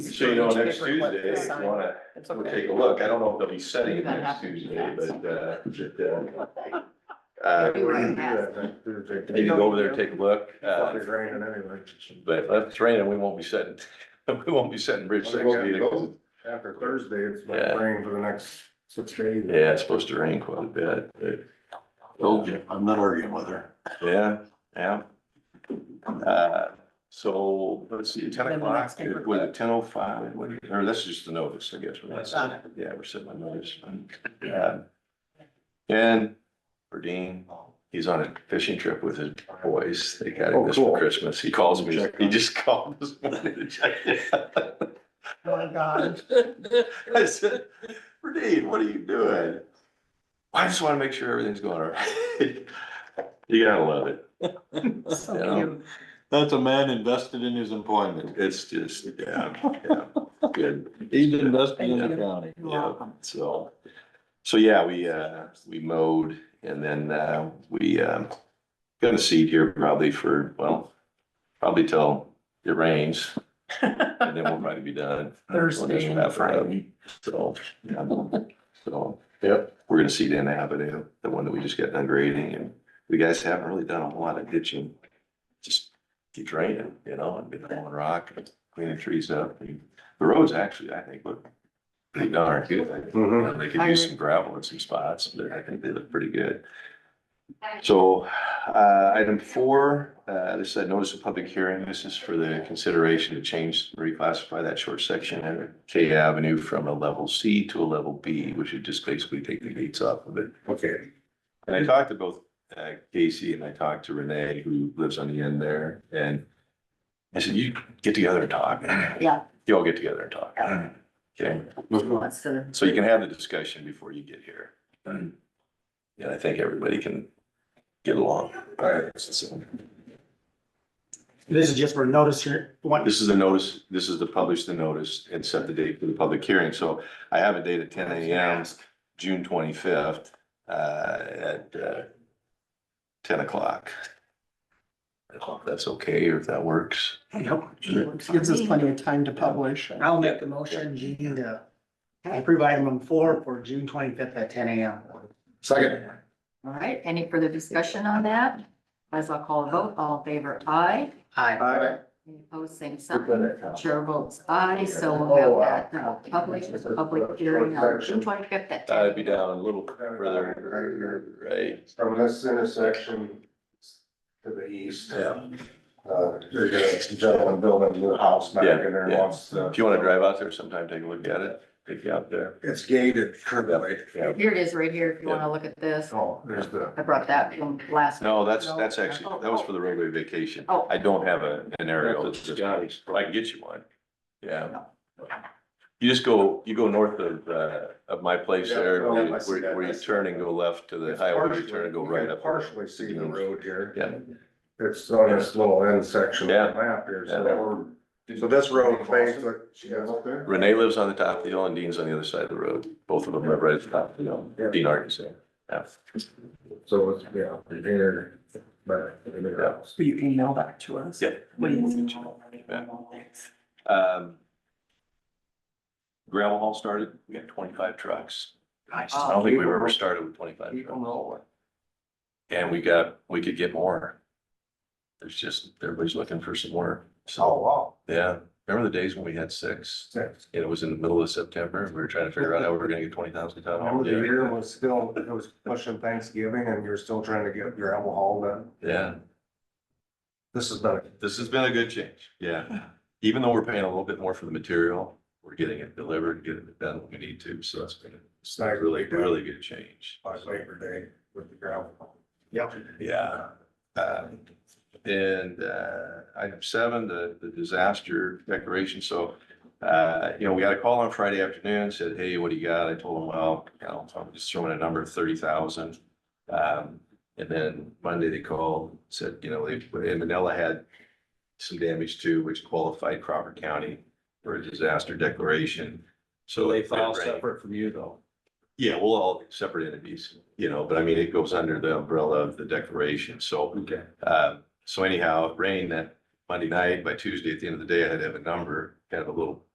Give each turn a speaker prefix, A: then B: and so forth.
A: So you know,
B: Which
A: next
B: paper clip
A: Tuesday,
B: is
A: if
B: signed.
A: you wanna,
B: It's
A: we'll
B: okay.
A: take a look. I don't know if they'll be setting it
B: That
A: next
B: happened.
A: Tuesday, but, uh, but, uh, uh,
C: Maybe
A: we're
C: right
A: gonna
C: past.
A: maybe go over there, take a look. uh,
D: It's raining anyway.
A: But if it's raining, we won't be setting, we won't be setting bridge six either. 'cause it's-
D: After Thursday, it's
A: Yeah.
D: been raining for the next six days.
A: Yeah, it's supposed to rain quite a bit. but-
E: Told you, I'm not arguing with her.
A: Yeah, yeah. Uh, So let's see, ten
B: Then the
A: o'clock,
B: next paper
A: was it ten oh five? Or that's just the notice, I guess. we're not-
B: That's on it.
A: Yeah, we're setting my notice. Um, And for Dean, he's on a fishing trip with his boys. They got
D: Oh,
A: him this for
D: cool.
A: Christmas. He calls me,
D: Check
A: he
D: on-
A: just called this morning to check. it out.
B: Oh, my God.
A: I said, Dean, what are you doing? I just want to make sure everything's going all right. You gotta love it.
B: So
A: Yeah.
B: cute.
E: That's a man invested in his employment.
A: It's just, yeah, yeah, good,
E: He's invested
B: Thank
E: in the
B: you.
E: county.
B: You're
A: yeah,
B: welcome.
A: so. So, yeah, we, uh, we mowed and then, uh, we, um, got a seed here probably for, well, probably till it rains. And then we'll probably be done.
B: Thursday and
A: After that,
B: Friday.
A: So, yeah, so, yep, we're gonna seed in Avenue, the one that we just got done grading and we guys haven't really done a whole lot of ditching. Just keep draining, you know, and been throwing rock and cleaning trees up. and The roads actually, I think, look pretty darn good. I think
D: Mhm.
A: They could use some gravel in some spots, but I think they look pretty good. So, uh, item four, uh, this is a notice of public hearing. This is for the consideration to change, reclassify that short section at K Avenue from a level C to a level B, which would just basically take the gates off of it.
D: Okay.
A: And I talked to both uh, Casey and I talked to Renee, who lives on the end there, and I said, you get together and talk.
C: Yeah.
A: You all get together and talk.
C: Yeah.
A: Okay,
C: Wants to-
A: so you can have the discussion before you get here. And I think everybody can get along. All right. so-
F: This is just for notice here, one,
A: This is the notice, this is to publish the notice and set the date for the public hearing. So I have a date at ten AM, June twenty-fifth, uh, at, uh, ten o'clock. I don't know if that's okay or if that works.
F: gives us plenty of time to publish. I'll make the motion, Gene, to approve item four for June twenty-fifth at ten AM.
D: Second.
C: All right, any further discussion on that? As I'll call a vote, all in favor, aye.
F: Aye.
D: Aye.
C: Any Opposed, same sign. Chair votes aye, so we'll
D: Oh, wow.
C: have that uh, published, the public hearing on June twenty-fifth at
A: I'd
C: ten.
A: be down a little further, right?
D: From this intersection to the east.
A: Yeah.
D: Uh, there's a gentleman building a new house back in
A: Yeah,
D: there
A: yeah.
D: wants to.
A: If you want to drive out there sometime, take a look at it, take you out there.
D: It's gated currently.
A: Yeah.
C: Here it is right here, if you want to look at this.
D: Oh, there's the.
C: I brought that from last.
A: No, that's, that's actually, that was for the roadway vacation.
C: Oh.
A: I don't have a, an aerial.
E: That's what Scotty's-
A: I can get you one. Yeah. You just go, you go north of, uh, of my place
D: Yeah,
A: there,
D: oh,
A: where you-
D: I see that.
A: where you turn and go left to the highway, you turn and go
D: Partially-
A: right
D: you
A: up.
D: can Partially see the road here.
A: Yeah.
D: It's on this little end section
A: Yeah.
D: of the map here, so
A: Yeah.
D: we're, so this road things like.
A: Renee lives on the top of the hill and Dean's on the other side of the road. Both of them live right at the top of the
D: Yeah.
A: hill. Dean Arkin's there. Yeah.
D: So it's, yeah, here, but. Yeah.
B: Will you email that to us?
A: Yeah.
B: Please.
A: Yeah. Um, Gravel haul started. We got twenty-five trucks.
B: Nice.
A: I don't think we've ever started with twenty-five trucks.
D: know.
A: And we got, we could get more. There's just, everybody's looking for some more.
D: Oh,
A: So,
D: wow.
A: yeah, remember the days when we had six? And it was in the middle of September, and we were trying to figure out how we were gonna get twenty thousand ton haul.
D: Remember the year was still, it was pushing Thanksgiving and you're still trying to get your apple hauled in?
A: Yeah,
D: This has been,
A: this has been a good change, yeah. Even though we're paying a little bit more for the material, we're getting it delivered, getting it done when we need to, so it's been, it's been a really, really good change.
D: by Labor Day with the gravel.
A: Yeah. Um, And uh, item seven, the, the disaster declaration. So, uh, you know, we got a call on Friday afternoon, said, hey, what do you got? I told them, well, you know, I'm just throwing a number of thirty thousand. Um, And then Monday they called, said, you know, they, and Manila had some damage too, which qualified Crawford County for a disaster declaration. So
E: They
A: it
E: file
A: ran-
E: separate from you though.
A: yeah, we'll all separate entities, you know, but I mean, it goes under the umbrella of the declaration, so.
E: Okay.
A: Uh, so anyhow, it rained that Monday night, by Tuesday, at the end of the day, I had to have a number, kind of a little